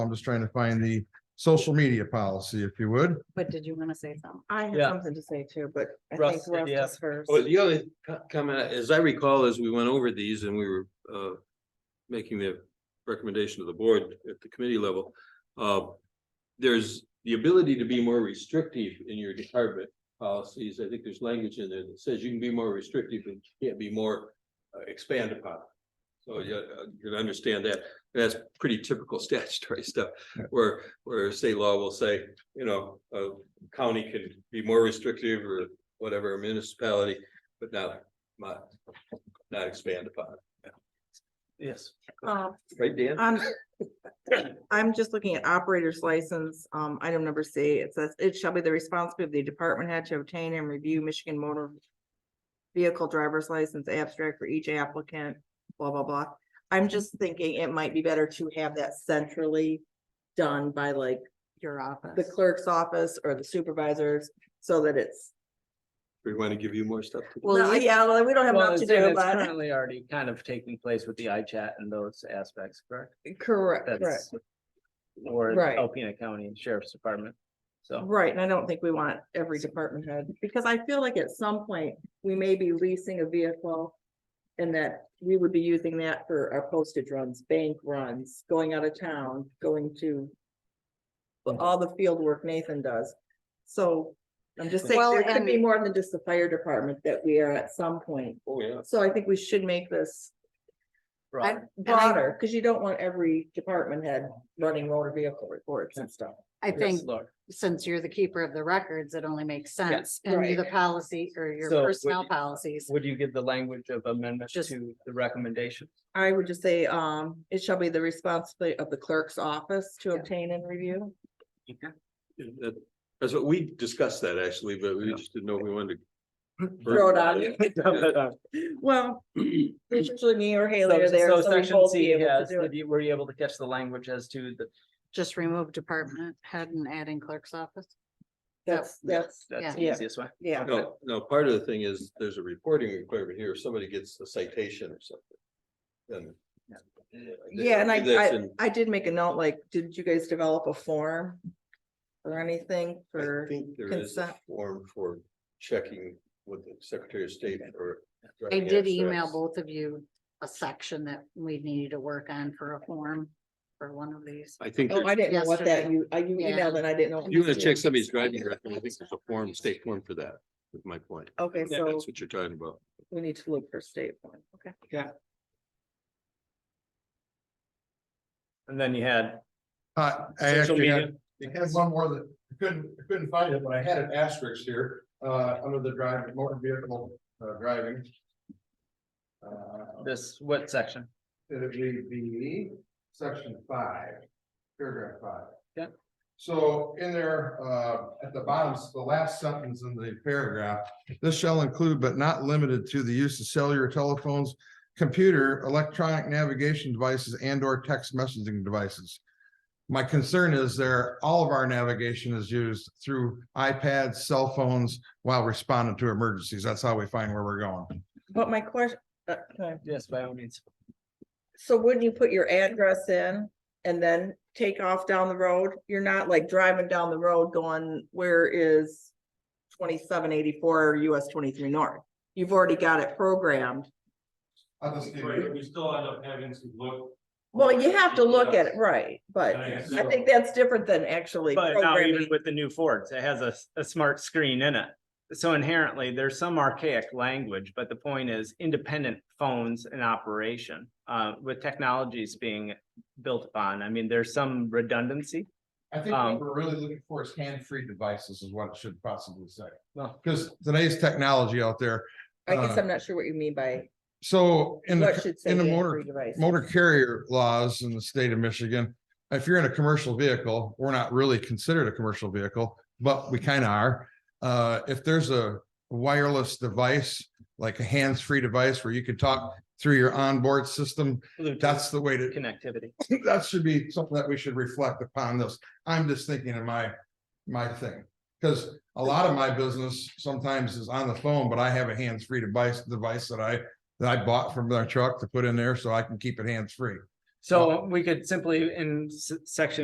I'm just trying to find the social media policy, if you would. But did you want to say something? I have Yeah. something to say too, but I think Russ, Russ yeah. is first. Well, the only co- comment, as I recall, as we went over these and we were uh making the recommendation to the board at the committee level, uh there's the ability to be more restrictive in your department policies. I think there's language in there that says you can be more restrictive and can't be more uh, expand upon. So yeah, uh, you can understand that. That's pretty typical statutory stuff where where state law will say, you know, a county can be more restrictive or whatever municipality, but not, not, not expand upon. Yes. Um, Right, Dan? Um, I'm just looking at operator's license, um, item number C, it says, it shall be the responsibility of the department head to obtain and review Michigan motor vehicle driver's license abstract for each applicant, blah, blah, blah. I'm just thinking it might be better to have that centrally done by like Your the office. clerk's office or the supervisors, so that it's, We want to give you more stuff. to- well, yeah, well, we don't have Well, enough it's to and do, it's but. currently already kind of taking place with the iChat and those aspects, correct? Correct, correct. That's Or Right. Alpena County Sheriff's Department, so. Right, and I don't think we want every department head, because I feel like at some point, we may be leasing a vehicle. And that we would be using that for our postage runs, bank runs, going out of town, going to. but All the field work Nathan does, so I'm just saying, Well, there could be and- more than just the fire department that we are at some point. Oh, yeah. So I think we should make this I- broad. and I- broader, because you don't want every department head running motor vehicle reports and stuff. I Yes, think Laura. since you're the keeper of the records, it only makes sense. And right. you're the policy or your So would personnel you- policies. Would you give the language of amendment Just- to the recommendation? I would just say, um, it shall be the responsibility of the clerk's office to Yeah. obtain and review. That- That's what we discussed that actually, but we just didn't know if we wanted to. Throw it on you. So Well, it's usually me or Haley are there. so so we section both be C, able to yes, do it. did you- were you able to catch the language as to the, Just remove department head and adding clerk's office. That's, that's, that's the Yeah. easiest way? yeah. No, no, part of the thing is there's a reporting requirement here. If somebody gets a citation or something, then. Yeah, and I, That's I, in- I did make a note, like, did you guys develop a form? Or anything I for, think there is a consent. form for checking with the Secretary of State or. I did email both of you a section that we needed to work on for a form for one of these. I think. oh, I didn't know what that, Yesterday. you, I, you Yeah. emailed and I didn't know. You want to check somebody's driving record, I think there's a form, state form for that, is my point. Okay, Yeah, so That's what you're talking about. we need to look for state one, okay. And then you had Uh, I Social actually media. had, I had one more that I couldn't, I couldn't find it, but I had an asterisk here, uh, under the driving, motor vehicle, uh, driving. Uh, this, what section? It'll be the section five, paragraph five. Yeah. So in there, uh, at the bottom, s- the last sentence in the paragraph, this shall include but not limited to the use of cellular telephones, computer, electronic navigation devices and or text messaging devices. My concern is there, all of our navigation is used through iPads, cell phones while responding to emergencies. That's how we find where we're going. But my question, uh, can I Yes, by all means. So wouldn't you put your address in and then take off down the road? You're not like driving down the road going, where is twenty-seven eighty-four US twenty-three north? You've already got it programmed. I'll just give Right, you- we still end up having to look. Well, you have to look at it, right, but I I guess so. think that's different than actually But now even programming. with the new Fords, it has a, s- a smart screen in it. So inherently, there's some archaic language, but the point is independent phones in operation, uh, with technologies being built upon. I mean, there's some redundancy. I think Um, what we're really looking for is hand-free devices is what it should possibly say. Well- Because today's technology out there, I guess uh, I'm not sure what you mean by so in what the, should say in the hands-free motor, device. motor carrier laws in the state of Michigan. If you're in a commercial vehicle, we're not really considered a commercial vehicle, but we kind of are. Uh, if there's a wireless device, like a hands-free device where you can talk through your onboard system, that's the way to, Connectivity. that should be something that we should reflect upon this. I'm just thinking of my, my thing. Cause a lot of my business sometimes is on the phone, but I have a hands-free device, device that I, that I bought from their truck to put in there so I can keep it hands-free. So we could simply in s- section